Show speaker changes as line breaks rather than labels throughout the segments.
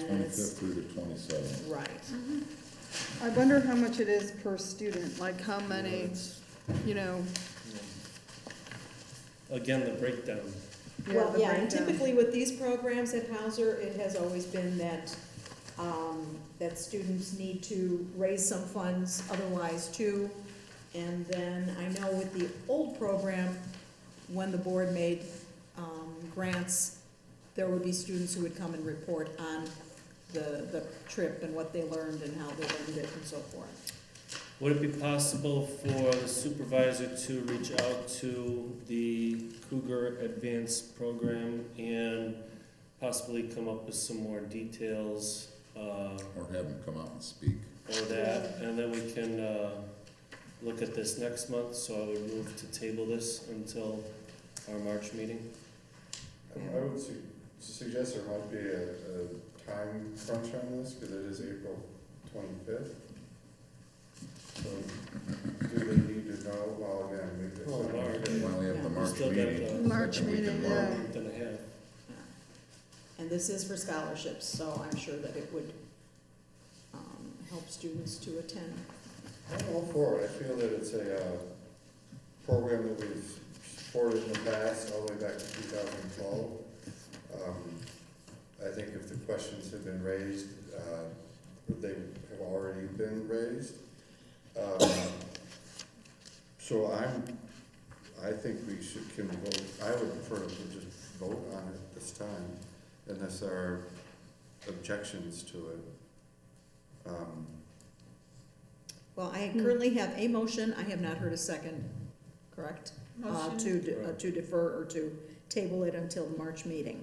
Twenty-fifth
is,
through the twenty-seventh.
right.
Mm-hmm. I wonder how much it is per student, like how many, you know,
Again, the breakdown.
yeah,
Well,
the
yeah, and
breakdown.
typically with these programs at Hauser, it has always been that, um, that students need to raise some funds otherwise too. And then I know with the old program, when the board made, um, grants, there would be students who would come and report on the, the trip and what they learned and how they learned it and so forth.
Would it be possible for the supervisor to reach out to the Cougar Advanced Program and possibly come up with some more details uh,
Or have them come out and speak.
or that? And then we can uh, look at this next month, so I would move to table this until our March meeting.
I would su- suggest there might be a, a time crunch on this, because it is April twenty-fifth. So, do they need to know, well, again, maybe it's
Well,
not-
Mark.
Why don't we have
Yeah.
the
We
March
still got
meeting?
the-
March
Second week in
meeting,
March.
yeah.
Then I have.
And this is for scholarships, so I'm sure that it would, um, help students to attend.
I'm all for it, I feel that it's a, uh, program that we've supported in the past, all the way back to two thousand twelve. Um, I think if the questions have been raised, uh, they have already been raised. Um, So I'm, I think we should, can vote, I would prefer to just vote on it this time, unless there are objections to it. Um,
Well, I
Hmm.
currently have a motion, I have not heard a second, correct? Uh,
Motion.
to, de- uh, to defer or to table it until the March meeting.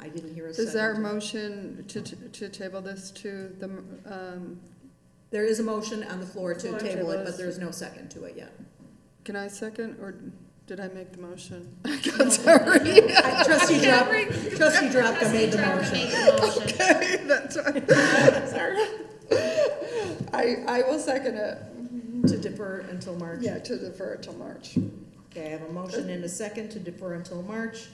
I didn't hear a second.
Is our motion to, to table this to the, um,
There is a motion on the floor to
Floor
table it,
tables.
but there's no second to it yet.
can I second, or did I make the motion? I'm sorry.
I- Trustee Drapka, trustee Drapka made the
Made
motion.
the motion.
Okay, that's right. Sorry. I, I will second it, Mm-hmm.
To defer until March.
yeah, to defer it till March.
Okay, I have a motion and a second to defer until March.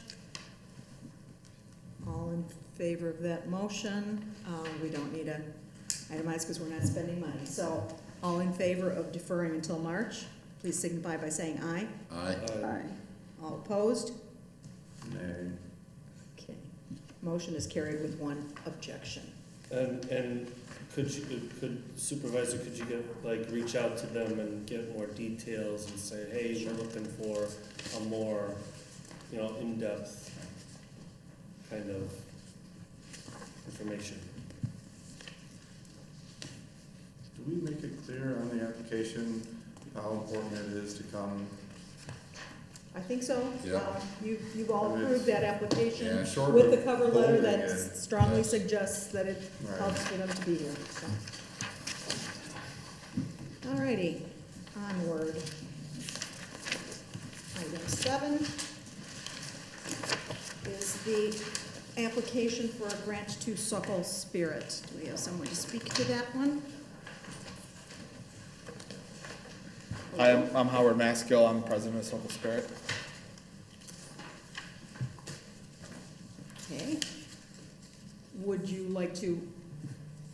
All in favor of that motion? Uh, we don't need a itemized because we're not spending money. So all in favor of deferring until March, please signify by saying aye.
Aye.
Uh,
Aye.
All opposed?
Nay.
Okay. Motion is carried with one objection.
And, and could you, could supervisor, could you get, like, reach out to them and get more details and say, hey, we're looking for a more, you know, in-depth kind of information?
Do we make it clear on the application how important it is to come?
I think so.
Yeah.
Um, You, you've all approved that application
Yeah.
Short
with
of
the cover letter
holding
that
it,
strongly suggests that it
Right.
helps for them to be here, so. Alrighty, onward. Item seven is the application for a grant to Suckle Spirit. Do we have someone to speak to that one?
Hi, I'm- I'm Howard Maskill, I'm president of Circle Spirit.
Okay. Would you like to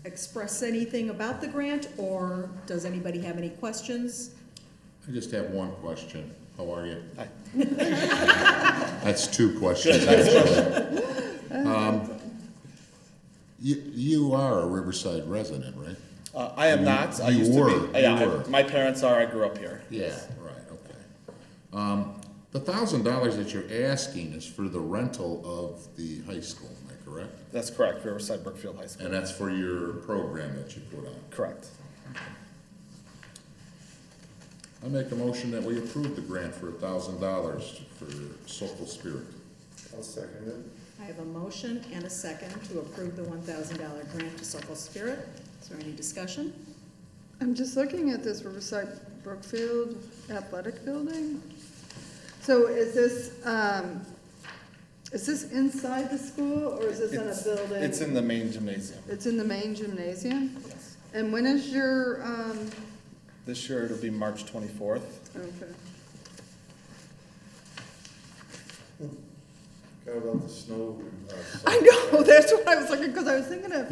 express anything about the grant, or does anybody have any questions?
I just have one question. How are you?
Hi.
That's two questions, actually. Um, You, you are a Riverside resident, right?
Uh, I am not, I
You
used to be.
were,
uh, Yeah,
you
I-
were.
my parents are, I grew up here.
Yeah, right, okay. Um, The thousand dollars that you're asking is for the rental of the high school, am I correct?
That's correct, Riverside Brookfield High
And
School.
that's for your program that you put on.
Correct.
I make a motion that we approve the grant for a thousand dollars for Sokol Spirit.
I'll second it.
I have a motion and a second to approve the one thousand dollar grant to Circle Spirit. Is there any discussion?
I'm just looking at this Riverside Brookfield Athletic Building. So is this, um, is this inside the school, or is this in a
It's-
building?
It's in the main gymnasium,
It's in the main gymnasium?
yes.
And when is your, um,
This year it'll be March twenty-fourth.
okay,
Got about the snow. uh,
I know, that's what I was looking, because I was thinking of